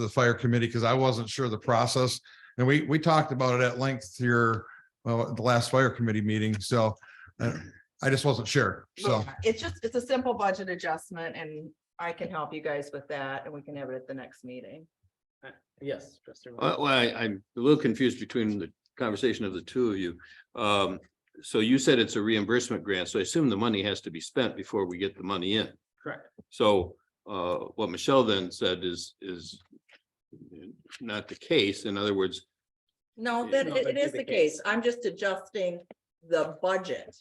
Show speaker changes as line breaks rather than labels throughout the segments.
the fire committee because I wasn't sure the process. And we, we talked about it at length here, well, at the last fire committee meeting. So uh, I just wasn't sure. So
Yeah, It's just, it's a simple budget adjustment and I can help you guys with that and we can have it at the next meeting.
Yes. Trustee Reiner.
Well, well, I, I'm a little confused between the conversation of the two of you. Um, so you said it's a reimbursement grant, so I assume the money has to be spent before we get the money in.
Correct.
So, uh, what Michelle then said is, is not the case. In other words,
No,
Yeah,
that
no,
it-
that'd
it
be
is
the
the
case.
case. I'm just adjusting the budget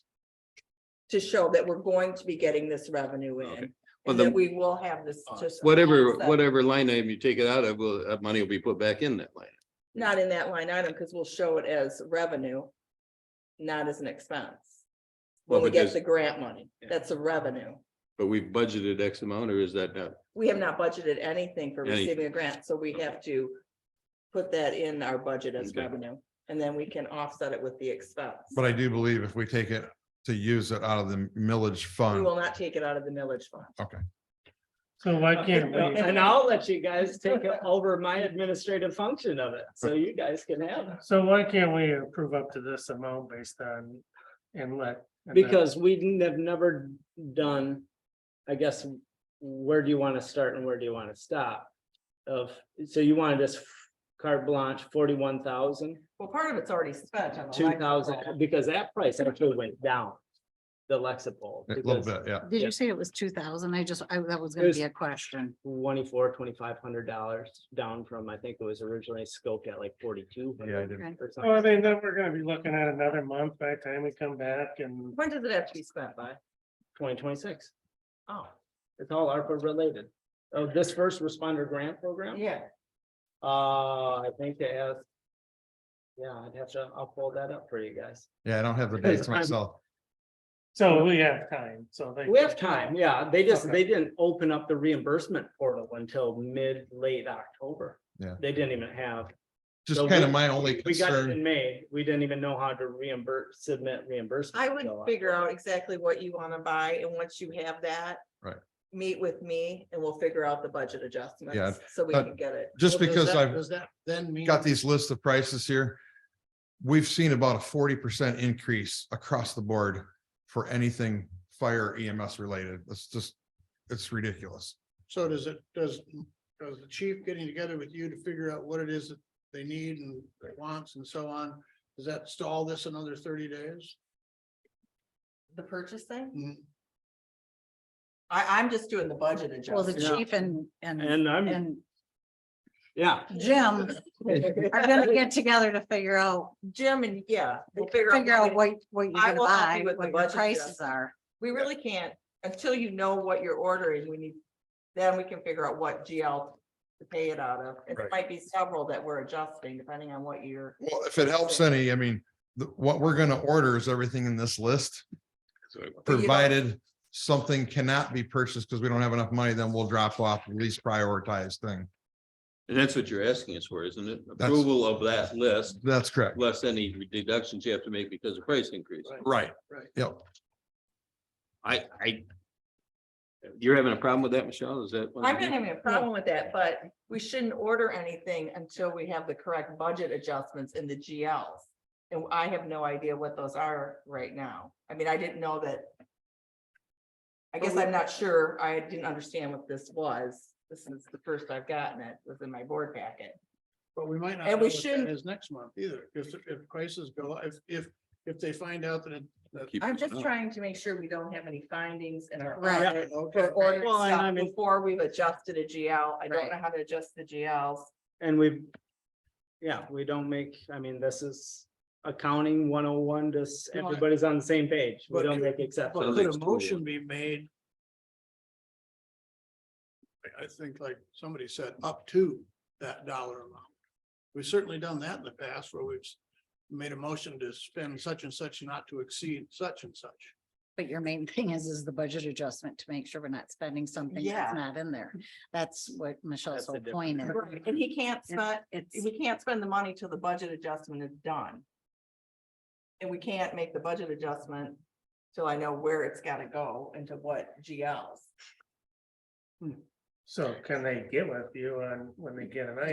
to show that we're going to be getting this revenue
Okay.
in
Well,
and
the-
that we will have this.
Uh,
just
whatever,
offset.
whatever line item you take it out of, will, that money will be put back in that line.
Not in that line item because we'll show it as revenue, not as an expense. When
Well,
we
but
get
does-
the grant money,
Yeah.
that's a revenue.
But we budgeted X amount or is that not?
We have not budgeted anything for
Anything.
receiving a grant, so we have to put that in our budget as
Okay.
revenue, and then we can offset it with the expense.
but I do believe if we take it to use it out of the millage
We
fund.
will not take it out of the millage fund.
So why can't we?
And I'll let you guys take over my administrative function of it, so you guys can have it.
So why can't we approve up to this amount based on inlet? and then-
Because we n- have never done, I guess, where do you want to start and where do you want to stop? Of, so you wanted this carte blanche forty-one thousand,
Well, part of it's already spent on. the
two
light
thousand,
bulb.
because that price actually went down. The Lexipol.
A little bit, yeah.
Did
Yeah.
you say it was two thousand? I just, I, that was gonna
was-
be a question.
Twenty-four, twenty-five hundred dollars down from, I think it was originally scoped at like forty-two.
Yeah, I did.
Okay.
Or
Well, Oh, I
something.
mean, then we're gonna be looking at another month by the time we come back and
When does it have to be spent by?
twenty twenty-six.
Oh,
It's all ARPA related. Oh, this first responder grant program?
yeah,
Uh, I think it has. Yeah, I'd have to, I'll pull that up for you guys.
Yeah, I don't have the
Because
dates
I'm-
myself.
so we have time, so they.
We have time, yeah. They just,
Okay.
they didn't open up the reimbursement portal until mid, late October.
Yeah.
They didn't even have.
Just
so
kind of
we-
my only
We got it in
concern.
May. We didn't even know how to reimburse, submit reimbursement.
I would
until
figure out exactly what you want to buy, and once you have that.
Right.
Meet with me and we'll figure out the budget
Yeah,
adjustments, so we
but-
can get it.
Just
Well, does
because
that-
I've
Does that then mean?
got these lists of prices here. We've seen about a forty percent increase across the board for anything fire EMS related. It's just, it's ridiculous.
So does it, does, does the chief getting together with you to figure out what it is that they need and wants and so on? Does that stall this another thirty days?
The purchasing?
Mm,
I, I'm just doing the budget
Well, the
adjustment.
Yeah.
chief and, and,
And um, I'm,
and
yeah.
Jim are gonna get together to figure out,
Jim and, yeah. we'll
figure out what, what you're
I
gonna
will help you
buy,
with the
what your
budget,
prices
Jeff.
are.
We really can't, until you know what you're ordering, we need, then we can figure out what GL to pay it out of. It
Right.
might be several that we're adjusting depending on what you're.
Well, if it helps any, I mean, the, what we're gonna order is everything in this list,
But you don't-
provided something cannot be purchased because we don't have enough money, then we'll drop off the least prioritized thing.
And that's what you're asking us for, isn't it? Approval of that list,
That's correct.
less any deductions you have to make because of price increase.
Right.
Right.
Yep.
I, I. You're having a problem with that, Michelle? Is that? what
I'm
it
not
is?
having a problem with that, but we shouldn't order anything until we have the correct budget adjustments in the GLs. And I have no idea what those are right now. I mean, I didn't know that. I guess I'm not sure. I didn't understand what this was. This is the first I've gotten it, was in my board packet.
But we might not.
And
know
we
what that
shouldn't-
Is next month either, because if prices go, if, if, if they find out that. it- that-
Keep
I'm
it
just
up.
trying to make sure we don't have any findings in our
Right.
audit
Okay.
for ordering
Well, and I
stuff
mean-
before we've adjusted a GL. I don't
Right.
know how to adjust the GLs.
And we, yeah, we don't make, I mean, this is accounting one oh one, just
No, I-
everybody's on the same page. We
But-
don't make
But
exceptions.
Sounds
could
like
a
school.
motion be made? I, I think like somebody said, up to that dollar amount. We've certainly done that in the past where we've s- made a motion to spend such and such not to exceed such and such.
But your main thing is, is the budget adjustment to make sure we're not spending something
Yeah.
that's not in there. That's what Michelle's
That's the
whole point is.
Right, And he can't spend,
It's,
we can't spend the money till the budget adjustment is done. And we can't make the budget adjustment till I know where it's gotta go and to what GLs.
So can they get with you on when they get an